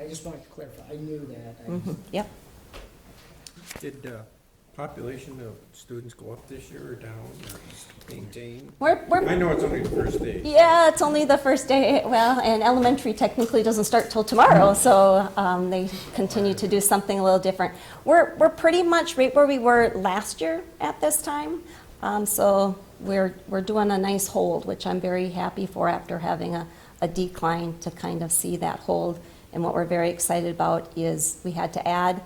I just wanted to clarify, I knew that. I- Mhm, Yep. Did uh, population of students go up this year or down or maintain? We're, I we're, know it's only the first day. yeah, it's only the first day, well, and elementary technically doesn't start till tomorrow, so um, they continue to do something a little different. We're, we're pretty much right where we were last year at this time, Um, so we're, we're doing a nice hold, which I'm very happy for after having a, a decline to kind of see that hold. And what we're very excited about is we had to add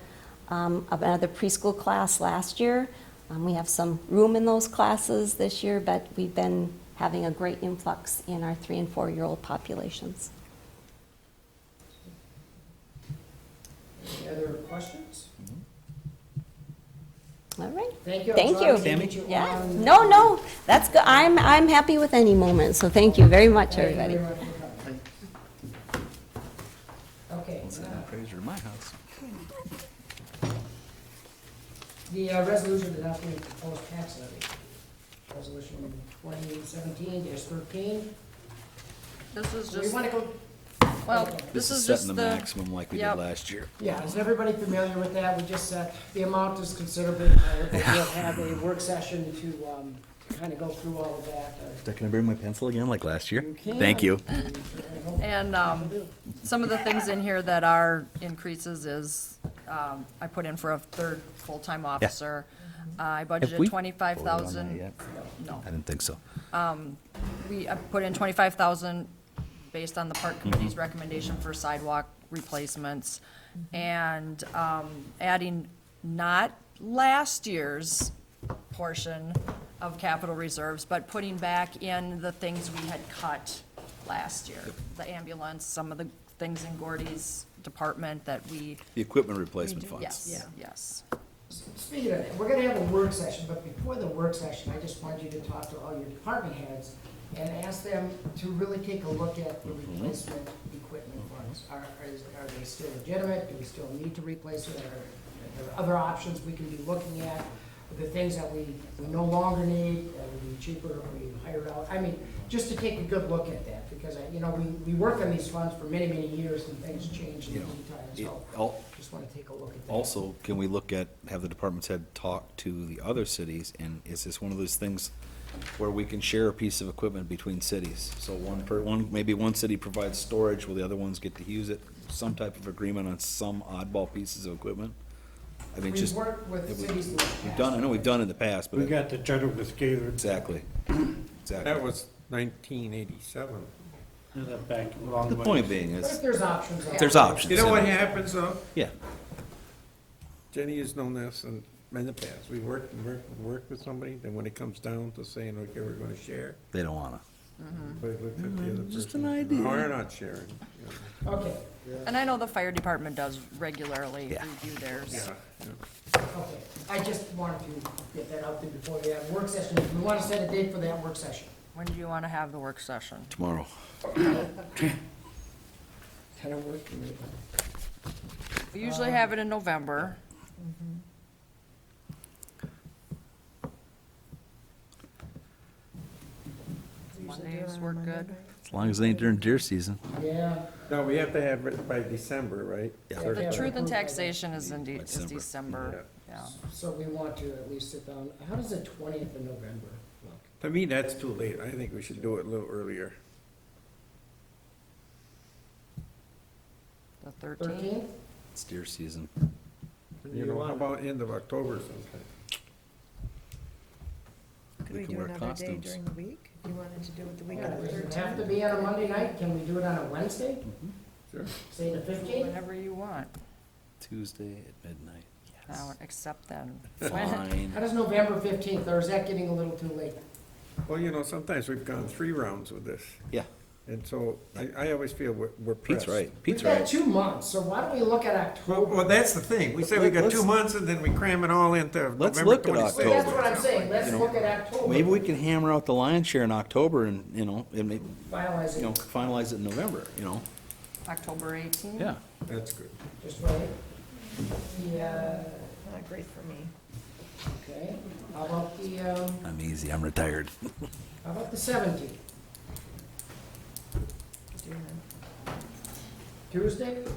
um, of another preschool class last year. Um, we have some room in those classes this year, but we've been having a great influx in our three and four year old populations. Any other questions? All right. Thank you. I'm Thank sorry you. we didn't get you Yeah. on. No, no, that's good. I'm, I'm happy with any moment, so thank you very much, Thank you very everybody. much for coming. Okay, uh, Appraiser in my house. the uh, resolution adopting the proposed tax levy, resolution twenty seventeen thirteen. This is Do you just, want to go? well, this is just Setting the the, maximum like we did Yep. last year. Yeah, is everybody familiar with that? We just, uh, the amount is considerably higher, but we'll have a work session to, um, kind of go through all of that. uh, Can I bring my pencil again like last year? can. Thank you. and, um, some of the things in here that are increases is, um, I put in for a third full-time officer. Uh, I we budgeted twenty-five voted on thousand, that no, I didn't think so. we, I put in twenty-five thousand based on the park committee's recommendation for sidewalk replacements. And, um, adding not last year's portion of capital reserves, but putting back in the things we had cut last year. The ambulance, some of the things in Gordy's department that we. The equipment replacement redu- Yes, funds. yes. Speaking of that, we're gonna have a work session, but before the work session, I just want you to talk to all your department heads and ask them to really take a look at the replacement equipment funds. Are, are, are they still legitimate? Do we still need to replace it? Are are there other options we can be looking at? The things that we we no longer need, that would be cheaper, if we hired out? I mean, just to take a good look at that, because, I- you know, we, we worked on these funds for many, many years and things change in the You know, it- meantime, so al- just wanna take a look at that. Also, can we look at, have the department's head talk to the other cities? And is this one of those things where we can share a piece of equipment between cities? So one per, one, maybe one city provides storage while the other ones get to use it? Some type of agreement on some oddball pieces of equipment? I mean, We've just. worked with have we- cities in the past. We've done, I know we've done in the past, but. We got the cheddar with Gaylord, Exactly. Exactly. That was nineteen eighty-seven. and that back a long The way. point being But if is, there's options. out there's there. options. You know what happens though? Yeah. Jenny has known this in, in the past. We worked and worked and worked with somebody, then when it comes down to saying, okay, we're gonna share, They don't wanna. but look at the other person. Mm-hmm. Just an idea. No, we're not sharing. you know. Okay, And I know the fire department does regularly Yeah. review theirs. Yeah, yeah. okay. I just wanted to get that out there before we have work session. We want to set a date for that work session. When do you want to have the work session? Tomorrow. Kind of work. We usually have it in November. Mondays work good. As long as it ain't during deer season. Yeah. No, we have to have it by December, right? Yeah. Sure. The truth in Approved by taxation is in, de- is December. December, yeah. So we want to at least sit down. How does the twentieth of November look? To me, that's too late. I think we should do it a little earlier. The thirteenth, Thirteenth? It's deer season. You know, how about end of October sometime? Could We we can do wear another day costumes. during the week? If you wanted to do it the week of the Does it 13th? have to be on a Monday night? Can we do it on a Wednesday? Sure. Say the fifteenth? whenever you want. Tuesday at midnight. I would accept then. Fine. How does November fifteenth, or is that getting a little too late? Well, you know, sometimes we've gone three rounds with this, Yeah, and so I, I always feel we're, we're Pete's pressed. right. We've Pete's got right. two months, so why don't we look at Well, October? well, that's the thing. We say we got two Let's- months and then we cram it all into Let's November look at Well, That's twenty-sixth. October. what I'm saying. Let's look at October. Maybe we can hammer out the lion's share in October and, you know, and maybe, Finalize you know, it. finalize it in November, you know? October eighteenth? Yeah. That's good. Just wait. Yeah, Not great for me. okay. How about the, um, I'm easy. I'm retired. how about the seventeenth? Do you know? Tuesday?